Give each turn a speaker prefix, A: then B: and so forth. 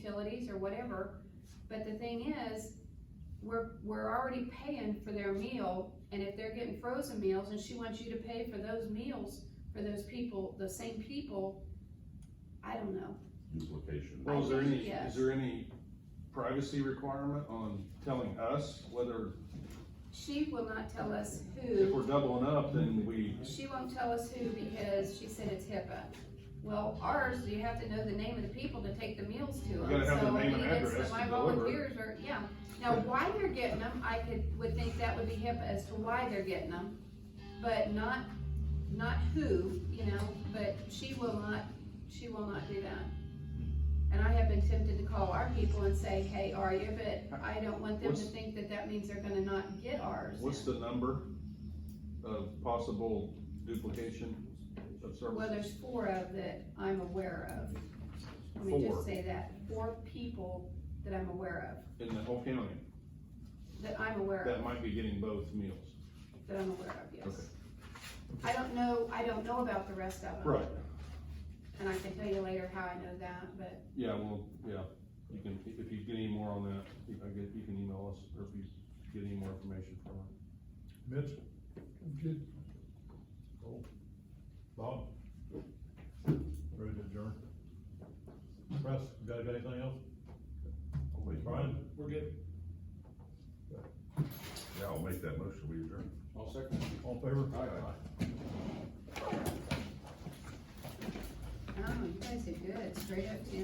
A: or whatever, but the thing is, we're, we're already paying for their meal, and if they're getting frozen meals, and she wants you to pay for those meals for those people, the same people, I don't know.
B: duplication.
A: Well,
C: Well, is there
A: think
C: any,
A: yes.
C: is there any privacy requirement on telling us whether,
A: She will not tell us
C: if we're
A: who,
C: doubling up, then we,
A: she won't tell us who because she said it's HIPAA. Well, ours, you have to know the name of the people to take the meals to them.
C: You gotta have the
A: So,
C: name and
A: I mean, it's-
C: address
A: My
C: to deliver.
A: volunteers are, yeah. Now, why they're getting them, I could, would think that would be HIPAA as to why they're getting them, but not, not who, you know, but she will not, she will not do that.
C: Hmm.
A: And I have been tempted to call our people and say, hey, are you, but I don't want them to
C: What's-
A: think that that means they're gonna not get ours.
C: what's the number of possible duplication of
A: Well,
C: services?
A: there's four of that I'm aware of. Let me
C: Four.
A: just say that, four people that I'm aware of,
C: In the whole county,
A: that I'm aware of,
C: that might be getting both meals.
A: that I'm aware of, yes.
C: Okay.
A: I don't know, I don't know about the rest of them.
C: Right.
A: And I can tell you later how I know that, but
C: Yeah, well, yeah, you can, if you get any more on that, you can get, you can email us, or if you get any more information from her.
D: Mitch? Good. Cool. Bob? Ready to adjourn? Russ, you got, got anything else? Brian?
C: We're good.
B: Yeah, I'll make that motion, we adjourn.
C: All second.
D: All in favor?
C: Aye.
A: I don't know, you guys are good, straight up to